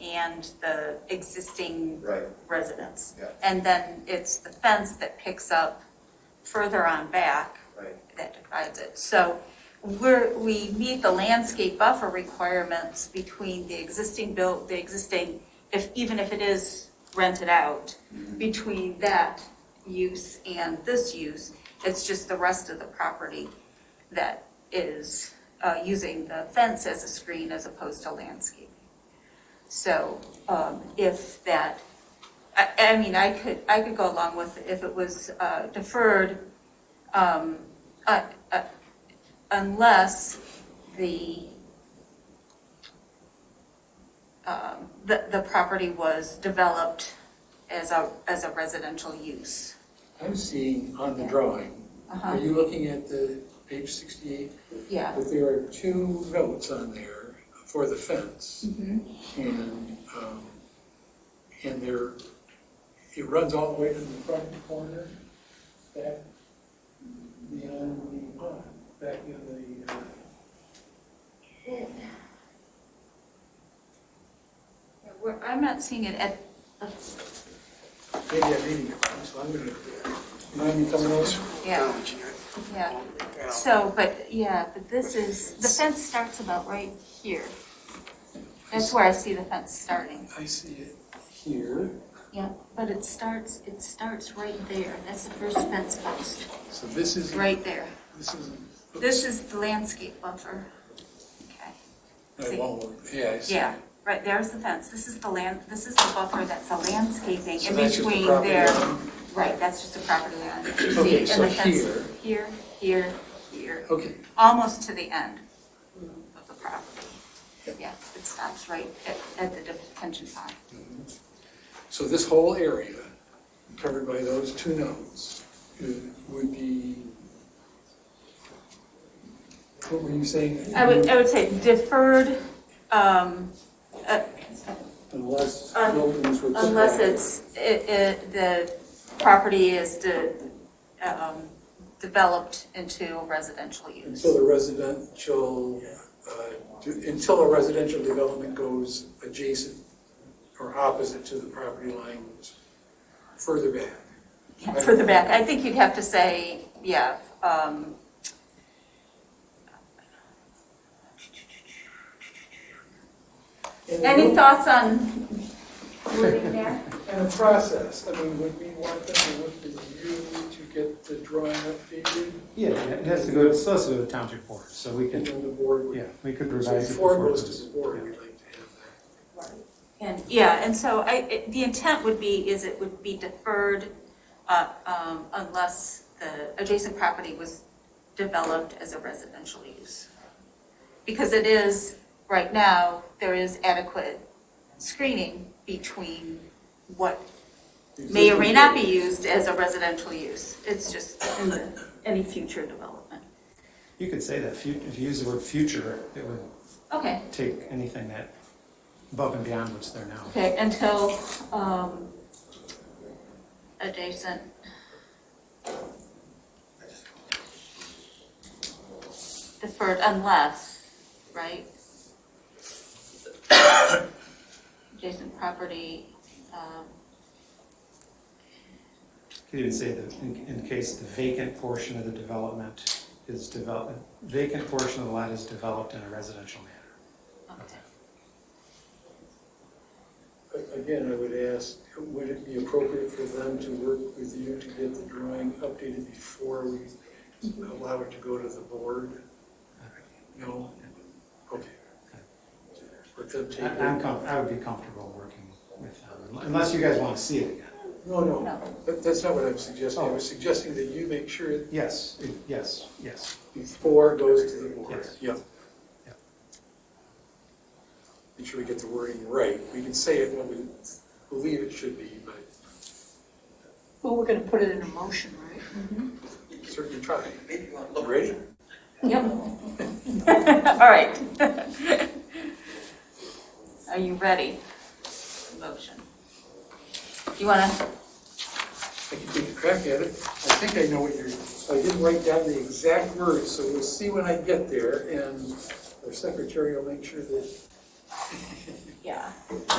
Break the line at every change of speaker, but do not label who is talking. and the existing
Right,
residents.
Yeah.
And then it's the fence that picks up further on back
right.
that divides it. So we're, we meet the landscape buffer requirements between the existing built, the existing, if, even if it is rented out, between that use and this use. It's just the rest of the property that is uh, using the fence as a screen as opposed to landscaping. So um, if that, I, I mean, I could, I could go along with if it was uh, deferred um, uh, uh, unless the, um, the, the property was developed as a, as a residential use.
I'm seeing on the drawing, are
Uh-huh,
you looking at the page sixty-eight?
yeah.
That there are two notes on there for the fence
Mhm.
and, um, and there, it runs all the way to the front corner, back beyond the pond, back in the, uh,
Yeah, we're- I'm not seeing it at,
maybe I'm reading it wrong, so I'm gonna, mind me coming over?
yeah, yeah. So, but, yeah, but this is, the fence starts about right here. That's where I see the fence starting.
I see it here,
Yeah, but it starts, it starts right there. That's the first fence post,
so this is,
right there.
this is.
This is the landscape buffer. Okay.
I won't, yeah, I see.
Yeah, right, there's the fence. This is the land, this is the buffer that's the landscaping
So
in
that's just the
between
property
there.
line.
Right, that's just a property line. See,
Okay,
and
so
the fence
here.
Here, here, here,
Okay,
almost to the end of the property. Yeah, it stops right at, at the detention pond.
so this whole area covered by those two nodes uh, would be, what were you saying?
I would, uh, I would say deferred, um, uh,
Unless
Un-
buildings were.
Unless it's, it, it, the property is de, um, developed into residential use.
Until the residential, uh, to- until a residential development goes adjacent or opposite to the property lines further back.
Further back, I think you'd have to say, yeah, um,
And
any
the-
thoughts on wording there?
And the process, I mean, would we want them to work with you to get the drawing updated?
Yeah, it has to go, it still has to go to township board, so we
And
could,
then the board
yeah,
would,
we could
so
revise it
before it
before
goes to
this.
the board,
yeah.
we'd like to have that.
And, yeah, and so I, it- the intent would be, is it would be deferred, uh, um, unless the adjacent property was developed as a residential use. Because it is, right now, there is adequate screening between what may or may not be used as a residential use. It's just in the, any future development.
You could say that, fu- if you use the word future, it would
Okay,
take anything that, above and beyond what's there now.
okay, until, um, adjacent deferred unless, right? Adjacent property, um,
Could even say that in, in case the vacant portion of the development is developed, vacant portion of the lot is developed in a residential manner.
okay.
A- Again, I would ask, would it be appropriate for them to work with you to get the drawing updated before we allow it to go to the board? No? Okay. Let them take
I- I'm
it.
com, I would be comfortable working with them, unless you guys want to see it again.
No, no,
No.
that, that's not what I'm suggesting.
Oh.
I was suggesting that you make sure it
Yes, it- yes, yes.
Before it goes to the board.
Yes.
Yep.
Yep.
Make sure we get the wording right. We can say it when we believe it should be, but
Well, we're gonna put it in a motion, right?
certainly try. Ready?
Yep. All right. Are you ready? Motion. You wanna,
I can take a crack at it. I think I know what you're, I didn't write down the exact words, so we'll see when I get there. And our secretary will make sure that
yeah.